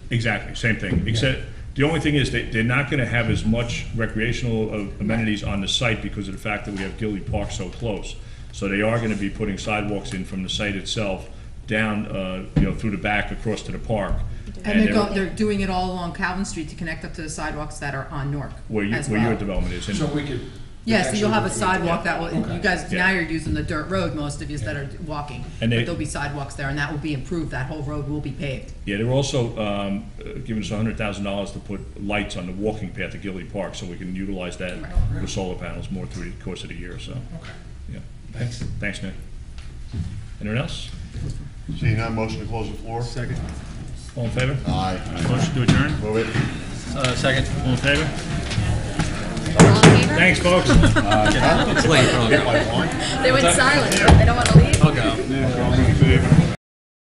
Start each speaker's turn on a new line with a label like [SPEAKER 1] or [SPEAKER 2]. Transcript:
[SPEAKER 1] Exactly, same thing, except, the only thing is, they, they're not gonna have as much recreational uh, amenities on the site because of the fact that we have Gilly Park so close. So they are gonna be putting sidewalks in from the site itself, down, uh, you know, through the back, across to the park.
[SPEAKER 2] And they're
[SPEAKER 1] everything.
[SPEAKER 2] go, they're doing it all along Calvin Street to connect up to the sidewalks that are on Newark
[SPEAKER 1] Where you,
[SPEAKER 2] as
[SPEAKER 1] where your
[SPEAKER 2] well.
[SPEAKER 1] development is,
[SPEAKER 3] So
[SPEAKER 1] and
[SPEAKER 3] we could.
[SPEAKER 2] Yeah, so you'll have a
[SPEAKER 3] actually-
[SPEAKER 2] sidewalk that will, you guys,
[SPEAKER 1] Yeah.
[SPEAKER 2] now you're using the dirt road, most of you that are walking. But
[SPEAKER 1] And they-
[SPEAKER 2] there'll be sidewalks there, and that will be improved, that whole road will be paved.
[SPEAKER 1] Yeah, they're also um, uh, giving us hundred thousand dollars to put lights on the walking path to Gilly Park, so we can utilize that with solar panels more through the course of the year, so,
[SPEAKER 3] Okay.
[SPEAKER 1] yeah.
[SPEAKER 3] Thanks.
[SPEAKER 1] Thanks, Nick. Anyone else?
[SPEAKER 4] Seeing none, motion to close the floor?
[SPEAKER 5] Second.
[SPEAKER 1] All in favor?
[SPEAKER 4] Aye.
[SPEAKER 1] Motion to adjourn?
[SPEAKER 4] Move it.
[SPEAKER 5] Uh, second.
[SPEAKER 1] All in favor?
[SPEAKER 6] All in favor?
[SPEAKER 1] Thanks, folks.
[SPEAKER 5] Wait, oh,
[SPEAKER 4] Get my point.
[SPEAKER 6] They went silent. They don't want to leave.
[SPEAKER 5] I'll go.
[SPEAKER 4] All in favor?